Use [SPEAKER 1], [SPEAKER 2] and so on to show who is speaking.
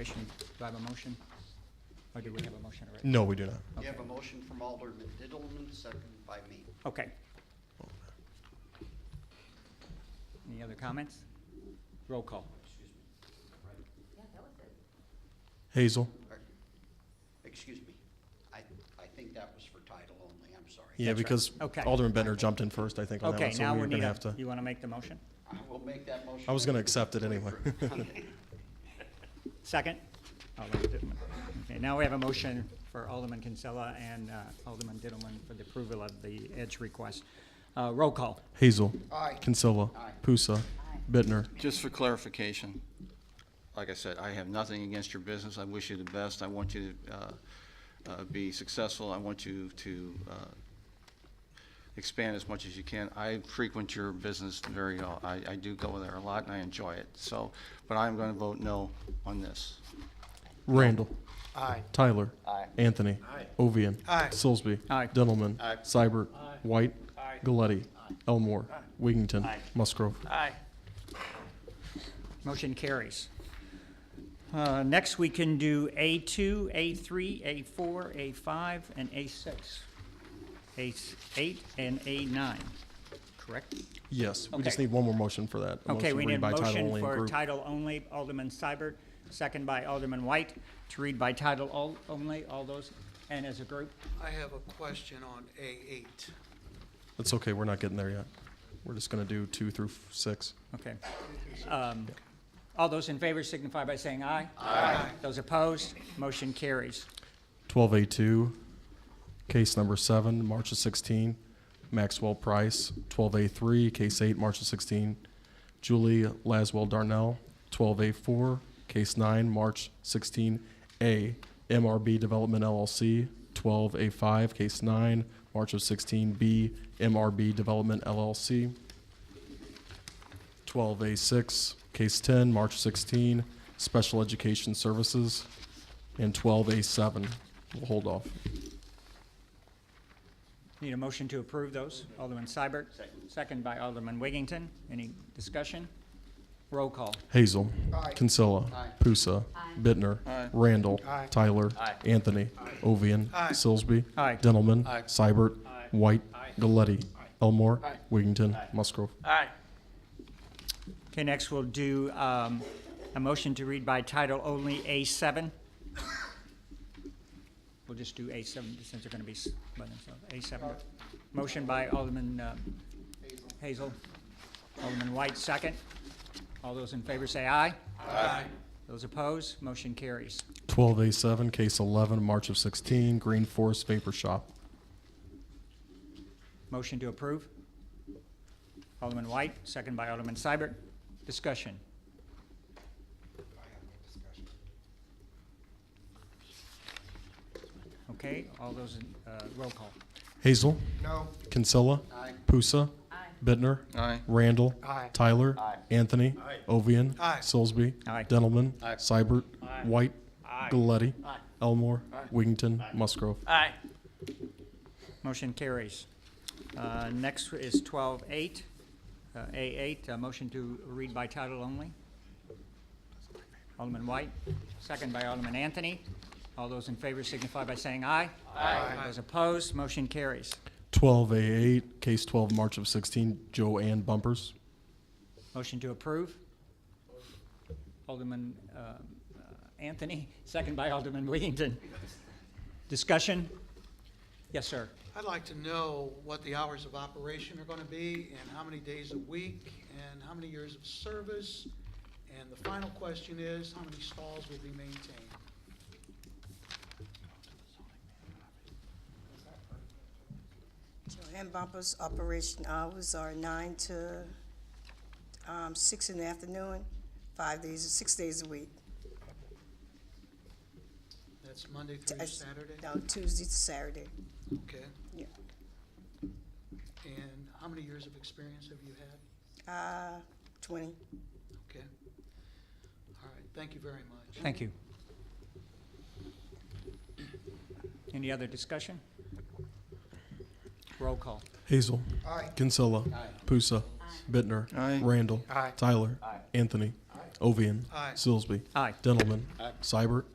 [SPEAKER 1] Motion, Do I have a motion? Or do we have a motion already?
[SPEAKER 2] No, we do not.
[SPEAKER 1] Okay.
[SPEAKER 3] You have a motion from Alderman Dillman, seconded by me.
[SPEAKER 1] Okay. Any other comments? Roll call.
[SPEAKER 2] Hazel?
[SPEAKER 3] Or- Excuse me, I, I think that was for title only, I'm sorry.
[SPEAKER 2] Yeah,
[SPEAKER 1] That's right.
[SPEAKER 2] because
[SPEAKER 1] Okay.
[SPEAKER 2] Alderman Bender jumped in first, I think, on that
[SPEAKER 1] Okay,
[SPEAKER 2] one, so
[SPEAKER 1] now we
[SPEAKER 2] we were
[SPEAKER 1] need
[SPEAKER 2] gonna
[SPEAKER 1] a,
[SPEAKER 2] have to.
[SPEAKER 1] you want to make the motion?
[SPEAKER 3] I will make that motion.
[SPEAKER 2] I was gonna accept it anyway.
[SPEAKER 1] Second? Oh, wait, Dittleman. Okay, now we have a motion for Alderman Kinsella and uh, Alderman Dittleman for the approval of the edge request. Uh, Roll call.
[SPEAKER 2] Hazel?
[SPEAKER 3] Aye.
[SPEAKER 2] Kinsella?
[SPEAKER 3] Aye.
[SPEAKER 2] Pusa? Bittner?
[SPEAKER 4] Just for clarification, like I said, I have nothing against your business. I wish you the best. I want you to uh, uh, be successful. I want you to uh, expand as much as you can. I frequent your business very, uh, I I do go there a lot and I enjoy it. So, but I'm going to vote no on this.
[SPEAKER 2] Randall?
[SPEAKER 5] Aye.
[SPEAKER 2] Tyler? Anthony? Ovian?
[SPEAKER 5] Aye.
[SPEAKER 2] Silsby?
[SPEAKER 1] Aye.
[SPEAKER 2] Dillman?
[SPEAKER 4] Aye.
[SPEAKER 2] Seibert? White?
[SPEAKER 5] Aye.
[SPEAKER 2] Galletti? Elmore? Wiggington? Musgrove?
[SPEAKER 5] Aye.
[SPEAKER 1] Motion carries. Uh, Next, we can do A2, A3, A4, A5, and A6. A8 and A9, correct?
[SPEAKER 2] Yes, we just
[SPEAKER 1] Okay.
[SPEAKER 2] need one more motion for that.
[SPEAKER 1] Okay,
[SPEAKER 2] a motion
[SPEAKER 1] we
[SPEAKER 2] to
[SPEAKER 1] need
[SPEAKER 2] read
[SPEAKER 1] a
[SPEAKER 2] by title
[SPEAKER 1] motion
[SPEAKER 2] only and
[SPEAKER 1] for
[SPEAKER 2] group.
[SPEAKER 1] title only, Alderman Seibert, second by Alderman White, to read by title all- only, all those, and as a group.
[SPEAKER 5] I have a question on A8.
[SPEAKER 2] That's okay, we're not getting there yet. We're just gonna do two through f- six.
[SPEAKER 1] Okay. Um, All those in favor signify by saying aye. Aye. Those opposed, motion carries.
[SPEAKER 2] 12A2, case number seven, March of 16, Maxwell Price. 12A3, case eight, March of 16, Julie Laswell Darnell. 12A4, case nine, March 16A, MRB Development LLC. 12A5, case nine, March of 16B, MRB Development LLC. 12A6, Case 10, March 16, Special Education Services, and 12A7. We'll hold off.
[SPEAKER 1] Need a motion to approve those. Alderman Seibert, second by Alderman Wiggington. Any discussion? Roll call.
[SPEAKER 2] Hazel. Kinsella. Pusa. Bittner. Randall. Tyler. Anthony. Ovian. Silsby.
[SPEAKER 1] Aye.
[SPEAKER 2] Dendelman. Seibert. White. Galletti. Elmore. Wiggington. Musgrove.
[SPEAKER 5] Aye.
[SPEAKER 1] Okay, next we'll do um, a motion to read by title only A7. We'll just do A7 since they're going to be s- by themselves. A7. Motion by Alderman uh, Hazel. Alderman White, second. All those in favor say aye. Aye. Those opposed, motion carries.
[SPEAKER 2] 12A7, Case 11, March of 16, Green Forest Vapor Shop.
[SPEAKER 1] Motion to approve. Alderman White, second by Alderman Seibert. Discussion. Okay, all those in, uh, roll call.
[SPEAKER 2] Hazel.
[SPEAKER 5] No.
[SPEAKER 2] Kinsella.
[SPEAKER 3] Aye.
[SPEAKER 2] Pusa. Bittner.
[SPEAKER 4] Aye.
[SPEAKER 2] Randall.
[SPEAKER 5] Aye.
[SPEAKER 2] Tyler. Anthony. Ovian.
[SPEAKER 5] Aye.
[SPEAKER 2] Silsby.
[SPEAKER 1] Aye.
[SPEAKER 2] Dendelman. Seibert. White. Galletti. Elmore. Wiggington. Musgrove.
[SPEAKER 5] Aye.
[SPEAKER 1] Motion carries. Uh, Next is 12-8, uh, A8, uh, motion to read by title only. Alderman White, second by Alderman Anthony. All those in favor signify by saying aye. Aye. Those opposed, motion carries.
[SPEAKER 2] 12A8, case 12, March of 16, Joanne Bumpers.
[SPEAKER 1] Motion to approve. Alderman uh, Anthony, second by Alderman Wiggington. Discussion? Yes, sir.
[SPEAKER 6] I'd like to know what the hours of operation are going to be, and how many days a week, and how many years of service. And the final question is, how many stalls will be maintained?
[SPEAKER 7] Joanne Bumpers' operation hours are nine to um, six in the afternoon, five days, six days a week.
[SPEAKER 6] That's Monday through Saturday?
[SPEAKER 7] No, Tuesday to Saturday.
[SPEAKER 6] Okay.
[SPEAKER 7] Yeah.
[SPEAKER 6] And how many years of experience have you had?
[SPEAKER 7] Uh, 20.
[SPEAKER 6] Okay. All right, thank you very much.
[SPEAKER 1] Thank you. Any other discussion? Roll call.
[SPEAKER 2] Hazel. Kinsella. Pusa. Bittner.
[SPEAKER 4] Aye.
[SPEAKER 2] Randall.
[SPEAKER 5] Aye.
[SPEAKER 2] Tyler. Anthony. Ovian.
[SPEAKER 5] Aye.
[SPEAKER 2] Silsby.
[SPEAKER 1] Aye.
[SPEAKER 2] Dendelman. Seibert.